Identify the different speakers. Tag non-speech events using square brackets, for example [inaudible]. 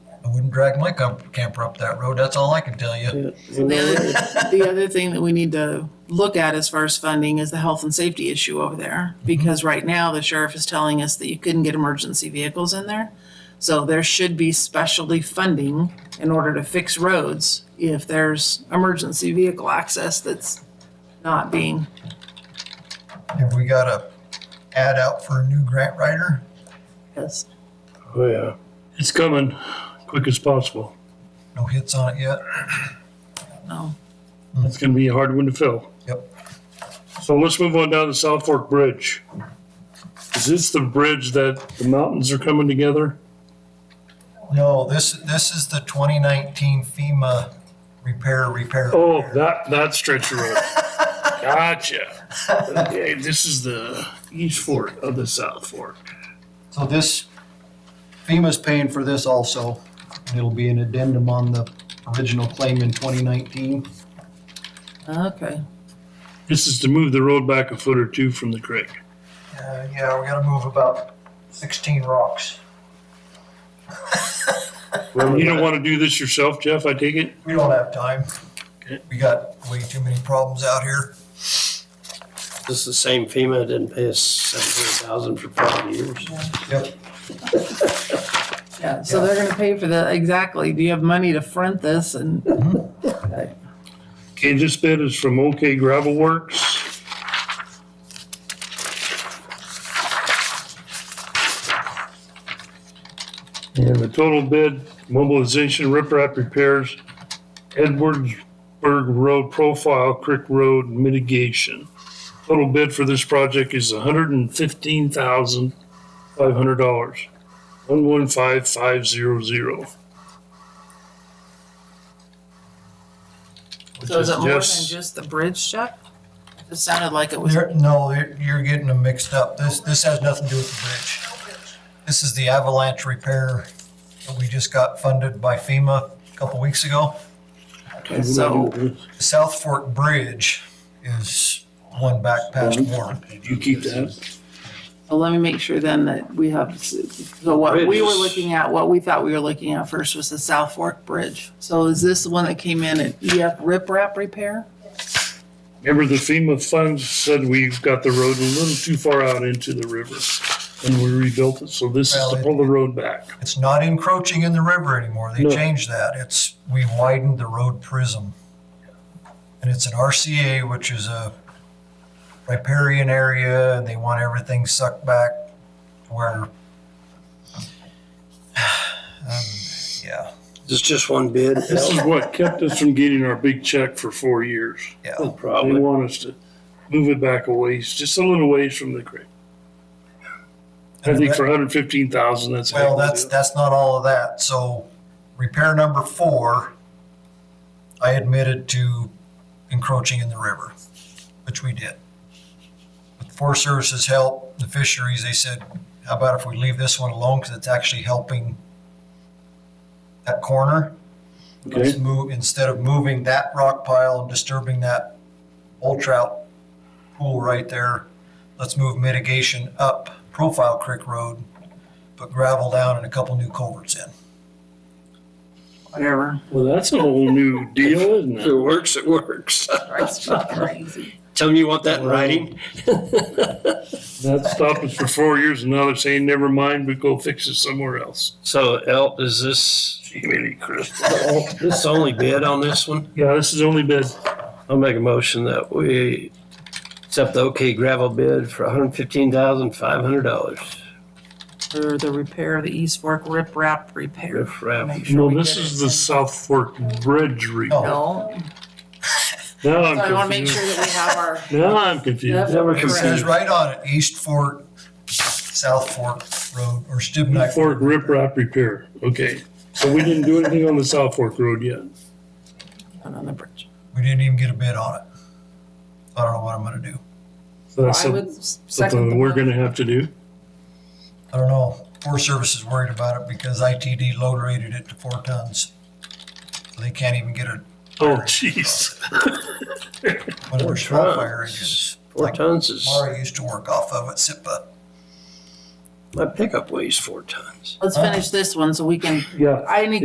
Speaker 1: drag my com- camper up that road. That's all I can tell you.
Speaker 2: And the other, the other thing that we need to look at as far as funding is the health and safety issue over there. Because right now, the sheriff is telling us that you couldn't get emergency vehicles in there. So there should be specialty funding in order to fix roads if there's emergency vehicle access that's not being.
Speaker 1: Have we got a ad out for a new grant writer?
Speaker 2: Yes.
Speaker 3: Oh, yeah. It's coming quick as possible.
Speaker 1: No hits on it yet?
Speaker 2: No.
Speaker 3: It's gonna be a hard one to fill.
Speaker 1: Yep.
Speaker 3: So let's move on down to South Fork Bridge. Is this the bridge that the mountains are coming together?
Speaker 1: No, this, this is the 2019 FEMA repair, repair.
Speaker 3: Oh,
Speaker 1: repair.
Speaker 3: that, that stretch of [laughs] road. Gotcha. Okay, this is the east fork of the South Fork.
Speaker 1: So this, FEMA's paying for this also. and It'll be an addendum on the original claim in 2019.
Speaker 2: Okay.
Speaker 3: This is to move the road back a foot or two from the creek.
Speaker 1: Uh, yeah, we gotta move about 16 rocks.
Speaker 3: You don't wanna do this yourself, Jeff, I take it?
Speaker 1: We don't have time.
Speaker 3: Okay.
Speaker 1: We got way too many problems out here.
Speaker 4: This is the same FEMA that didn't pay us seventeen thousand for five years.
Speaker 1: Yep.
Speaker 2: Yeah, so they're gonna pay for the, exactly. Do you have money to front this and?
Speaker 3: Okay, this bid is from OK Gravel Works. And the total bid mobilization riprap repairs, Edwardsburg Road profile, Creek Road mitigation. Total bid for this project is hundred and fifteen thousand five hundred dollars. One one five five zero zero.
Speaker 2: So is it more than just the bridge, Chuck? It sounded like it was.
Speaker 1: There, no, there- you're getting them mixed up. This, this has nothing to do with the bridge. This is the avalanche repair that we just got funded by FEMA a couple weeks ago.
Speaker 2: So-
Speaker 1: The South Fork Bridge is one back past Warren.
Speaker 3: You keep that?
Speaker 2: Well, let me make sure then that we have, so what we were
Speaker 4: Bridges.
Speaker 2: looking at, what we thought we were looking at first was the South Fork Bridge. So is this the one that came in at EF riprap repair?
Speaker 3: Remember the FEMA funds said we've got the road a little too far out into the river and we rebuilt it. So this is to pull the road back.
Speaker 1: It's not encroaching in the river anymore. They
Speaker 3: No.
Speaker 1: changed that. It's, we widened the road prism. And it's an RCA, which is a riparian area, and they want everything sucked back to where. [sighs] Um, Yeah,
Speaker 4: This is just one bid.
Speaker 3: This is what kept us from getting our big check for four years.
Speaker 1: yeah.
Speaker 3: They
Speaker 4: oh, Probably.
Speaker 3: want us to move it back a ways, just a little ways from the creek. I think for hundred fifteen thousand, that's. a heck
Speaker 1: Well,
Speaker 3: of a
Speaker 1: that's,
Speaker 3: deal.
Speaker 1: that's not all of that. So repair number four, I admitted to encroaching in the river, which we did. With Forest Service's help, the fisheries, they said, how about if we leave this one alone because it's actually helping that corner? Let's
Speaker 3: Okay.
Speaker 1: move, instead of moving that rock pile and disturbing that old trout pool right there, let's move mitigation up Profile Creek Road, put gravel down and a couple new culverts in.
Speaker 2: Whatever.
Speaker 3: Well, that's a whole new deal, isn't
Speaker 4: If it
Speaker 3: it?
Speaker 4: works, it works. [laughs]
Speaker 2: That's crazy.
Speaker 4: Tell them you want that in writing.
Speaker 3: That stopped us for four years and now they're saying, never mind, we go fix it somewhere else.
Speaker 4: So El, is this,
Speaker 3: Merry Christmas.
Speaker 4: this is the only bid on this one?
Speaker 3: Yeah, this is only bid.
Speaker 4: I'll make a motion that we accept the OK gravel bid for hundred fifteen thousand five hundred dollars.
Speaker 2: For the repair of the East Fork riprap repair.
Speaker 4: Riprap.
Speaker 2: Make sure
Speaker 3: No,
Speaker 2: we
Speaker 3: this
Speaker 2: get
Speaker 3: is
Speaker 2: it.
Speaker 3: the South Fork Bridge
Speaker 1: No.
Speaker 3: rebuild.
Speaker 2: No, so
Speaker 3: Now
Speaker 2: I wanna
Speaker 3: I'm
Speaker 2: make sure
Speaker 3: confused.
Speaker 2: that we have our,
Speaker 3: Now I'm confused.
Speaker 4: Never
Speaker 1: It says
Speaker 4: confused.
Speaker 1: right on it, East Fork, South Fork Road, or Stibnite.
Speaker 3: Fork riprap repair, okay. So we didn't do anything on the South Fork Road yet.
Speaker 2: one on the bridge.
Speaker 1: We didn't even get a bid on it. I don't know what I'm gonna do.
Speaker 3: So that's
Speaker 2: I would
Speaker 3: some-
Speaker 2: second the
Speaker 3: something we're
Speaker 2: motion.
Speaker 3: gonna have to do.
Speaker 1: I don't know. Forest Service is worried about it because ITD load rated it to four tons. They can't even get a,
Speaker 3: Oh, jeez.
Speaker 1: one of their small fire engines.
Speaker 4: Four tons is,
Speaker 1: Mara used to work off of at SIPA.
Speaker 4: my pickup weighs four tons.
Speaker 2: Let's finish this one so we can,
Speaker 3: Yeah.
Speaker 2: I need